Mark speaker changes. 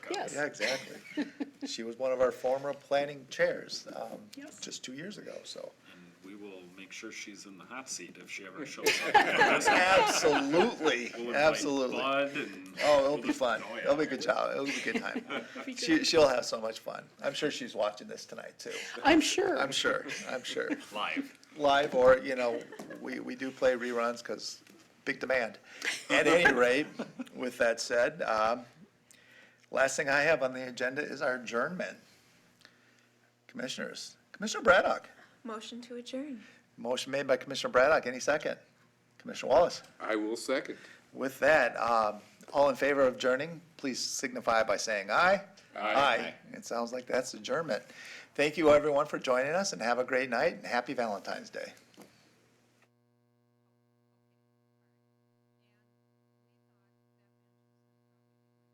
Speaker 1: Yes.
Speaker 2: Yeah, exactly. She was one of our former planning chairs, um,
Speaker 1: Yes.
Speaker 2: just two years ago, so.
Speaker 3: And we will make sure she's in the hot seat if she ever shows up.
Speaker 2: Absolutely,
Speaker 3: We'll invite
Speaker 2: absolutely. Oh,
Speaker 3: Bud and.
Speaker 2: it'll be fun.
Speaker 3: Oh, yeah.
Speaker 2: It'll be a good job. It'll be a good time.
Speaker 1: Be
Speaker 2: She,
Speaker 1: good.
Speaker 2: she'll have so much fun. I'm sure she's watching this tonight too.
Speaker 1: I'm sure.
Speaker 2: I'm sure, I'm sure.
Speaker 3: Live.
Speaker 2: Live or, you know, we, we do play reruns because big demand. At any rate, with that said, um, last thing I have on the agenda is our adjournment. Commissioners, Commissioner Braddock,
Speaker 4: Motion to adjourn.
Speaker 2: motion made by Commissioner Braddock, any second? Commissioner Wallace?
Speaker 5: I will second.
Speaker 2: With that, um, all in favor of adjourning, please signify by saying aye.
Speaker 5: Aye.
Speaker 2: It sounds like that's adjournment. Thank you, everyone, for joining us, and have a great night, and happy Valentine's Day.